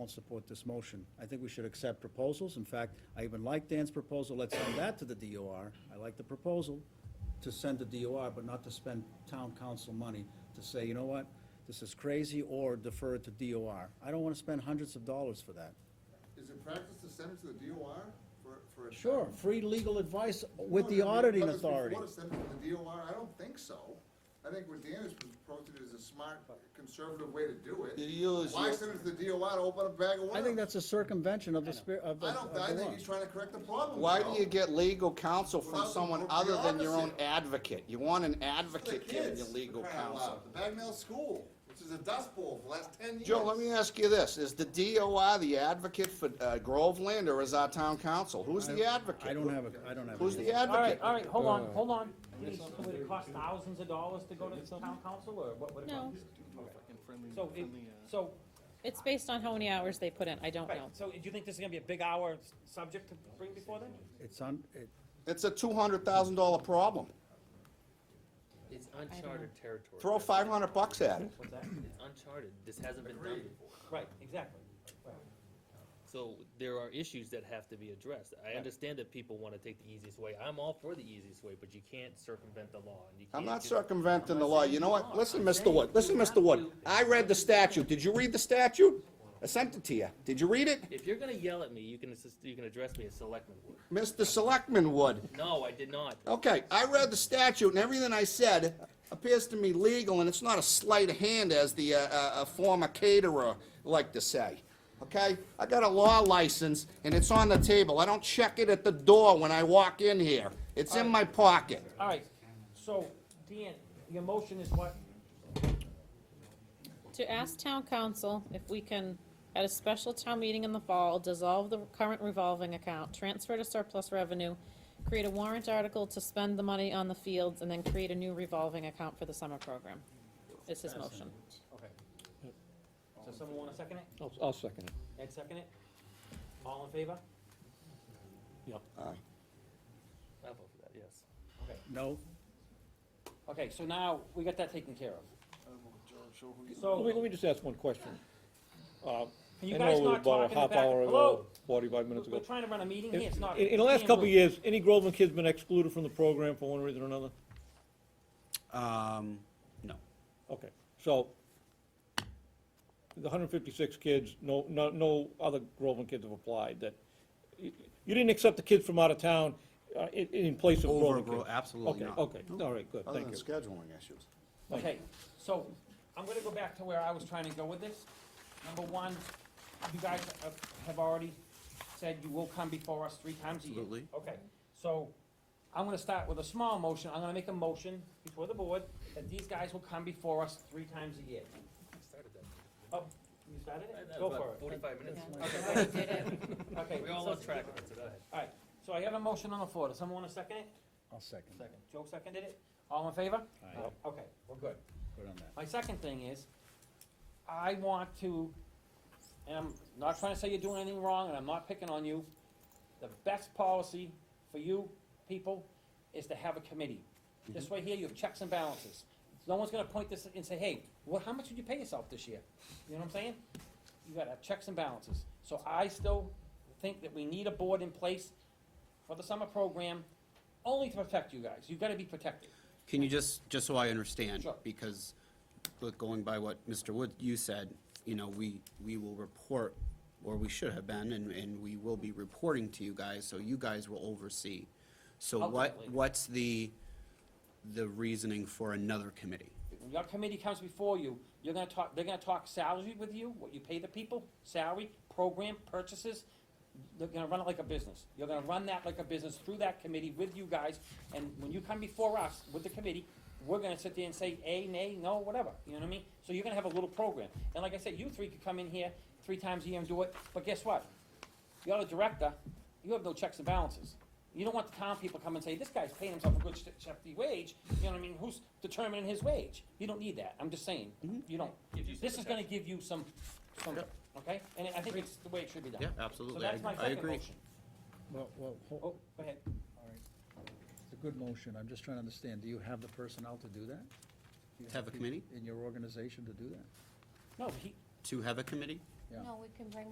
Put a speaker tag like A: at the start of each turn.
A: and support this motion. I think we should accept proposals. In fact, I even like Dan's proposal, let's send that to the DOR. I like the proposal to send to DOR, but not to spend town council money to say, you know what, this is crazy, or defer it to DOR. I don't want to spend hundreds of dollars for that.
B: Is it practice to send it to the DOR for, for? a-
A: Sure, free legal advice with
B: No,
A: the
B: no, no,
A: auditing
B: but it's
A: authority.
B: Before to send it to the DOR, I don't think so. I think what Dan is proposing is a smart, conservative way to do it.
C: You use
B: Why
C: your-
B: send it to the DOR to open a bag of worms?
A: I think that's a circumvention of the spirit, of the,
B: I
A: of
B: don't,
A: the
B: I think
A: law.
B: he's trying to correct the problem.
C: Why
B: Joe.
C: do you get legal counsel from
B: Well,
C: someone
B: we're-
C: other
B: we're
C: than your own
B: opposite.
C: advocate? You want an
B: For the
C: advocate giving
B: kids,
C: you
B: for
C: legal
B: crying out
C: counsel.
B: loud. The Bagnell School, which is a dust bowl for the last ten years.
C: Joe, let me ask you this, is the DOI the advocate for uh, Groveland, or is our town council? Who's the advocate?
A: I don't have a, I don't have.
C: Who's
A: an
C: the
A: answer.
D: All right,
C: advocate?
D: all right, hold on, hold on. Please, would it cost thousands of dollars to go to the town council, or what would it
E: No,
D: cost? So, it- so,
E: it's based on how many hours they put in, I don't
D: right,
E: know.
D: so do you think this is gonna be a big hour s- subject to bring before them?
A: It's on, it,
C: It's a two hundred thousand dollar problem.
F: It's uncharted territory.
C: Throw five hundred bucks at it.
D: What's that?
F: It's uncharted. This hasn't been done before.
D: Right, exactly. Right.
F: So there are issues that have to be addressed. I understand that people wanna take the easiest way. I'm all for the easiest way, but you can't circumvent the law and you can't.
C: I'm not
F: just-
C: circumventing
F: I'm
C: the
F: not
C: law,
F: saying
C: you know what,
F: are.
C: listen,
F: I'm
C: Mr.
F: saying
C: Wood, listen,
F: you
C: Mr.
F: have
C: Wood,
F: to-
C: I read the statute, did you read the statute? I sent it to you, did you read it?
F: If you're gonna yell at me, you can assist, you can address me as selectman Wood.
C: Mr. Selectman Wood,
F: No, I did not.
C: Okay, I read the statute and everything I said appears to me legal and it's not a sleight of hand as the, uh, uh, uh, former caterer liked to say. Okay? I got a law license and it's on the table. I don't check it at the door when I walk in here. It's in my pocket.
D: All right, so, Dan, your motion is what?
E: To ask town council if we can, at a special town meeting in the fall, dissolve the current revolving account, transfer to surplus revenue, create a warrant article to spend the money on the fields, and then create a new revolving account for the summer program. Is his motion.
D: Okay. So someone wanna second it?
G: I'll, I'll second it.
D: Ed second it? All in favor?
F: I'll vote for that, yes.
D: Okay,
A: no,
D: okay, so now, we got that taken care of.
G: Let me,
D: So,
G: let me just ask one question. Uh,
D: Can Oh, you
G: I
D: guys
G: know
D: not
G: about
D: talk
G: a
D: in the
G: half
D: back?
G: hour
D: Hello?
G: ago, Forty-five minutes
D: we're
G: ago.
D: trying to run a meeting
G: In,
D: here, it's not.
G: in the last
D: Dan,
G: couple of
D: we're-
G: years, any Groveland kid's been excluded from the program for one reason or another?
C: Um, no.
G: Okay, so the hundred fifty-six kids, no, no, no other Groveland kids have applied that, you you didn't accept the kids from out of town, uh, in, in place of
C: Over
G: Groveland
C: Gro-
G: kids?
C: absolutely not.
G: Okay, okay, all right, good,
C: Other
G: thank
C: than
G: you.
C: scheduling issues.
D: Okay, so I'm gonna go back to where I was trying to go with this. Number one, you guys have- have already said you will come before us three times a year.
C: Absolutely.
D: Okay, so I'm gonna start with a small motion. I'm gonna make a motion before the board that these guys will come before us three times a year.
F: I started that.
D: Oh, you started it?
F: That
D: Go
F: was about
D: for it.
F: Forty-five minutes.
D: Okay,
F: We're all
D: so-
F: on track of it, so go ahead.
D: All right, so I have a motion on the floor. Does someone wanna second it?
A: I'll second.
D: Joe seconded it? All in favor?
A: Aye.
D: Okay, we're good.
A: Good on that.
D: My second thing is, I want to, and I'm not trying to say you're doing anything wrong, and I'm not picking on you. The best policy for you people is to have a committee. This way here, you have checks and balances. No one's gonna point this and say, hey, what, how much did you pay yourself this year? You know what I'm saying? You gotta have checks and balances. So I still think that we need a board in place for the summer program, only to protect you guys. You gotta be protected.
H: Can you just, just so I understand?
D: Sure.
H: Because, look, going by what Mr. Wood, you said, you know, we, we will report, or we should have been, and, and we will be reporting to you guys, so you guys will oversee. So what,
D: Ultimately.
H: what's the, the reasoning for another committee?
D: When your committee comes before you, you're gonna talk, they're gonna talk salary with you, what you pay the people, salary, program, purchases. They're gonna run it like a business. You're gonna run that like a business through that committee with you guys. And when you come before us with the committee, we're gonna sit there and say, A, nay, no, whatever, you know what I mean? So you're gonna have a little program. And like I said, you three could come in here three times a year and do it, but guess what? You're the director, you have no checks and balances. You don't want the town people come and say, this guy's paying himself a good sh- hefty wage, you know what I mean, who's determining his wage? You don't need that, I'm just saying, you don't.
F: Gives you some
D: This is gonna give you some, some, okay? And I think it's the way it should be done.
H: Yeah, absolutely.
D: So that's
H: I-
D: my
H: I
D: second
H: agree.
D: motion.
A: Well, well,
D: Oh,
A: ho-
D: go ahead.
A: it's a good motion, I'm just trying to understand, do you have the personnel to do that? Do you
H: To have a
A: people
H: committee?
A: In your organization to do that?
D: No, he,
H: To have a committee?
A: Yeah.
I: No, we can bring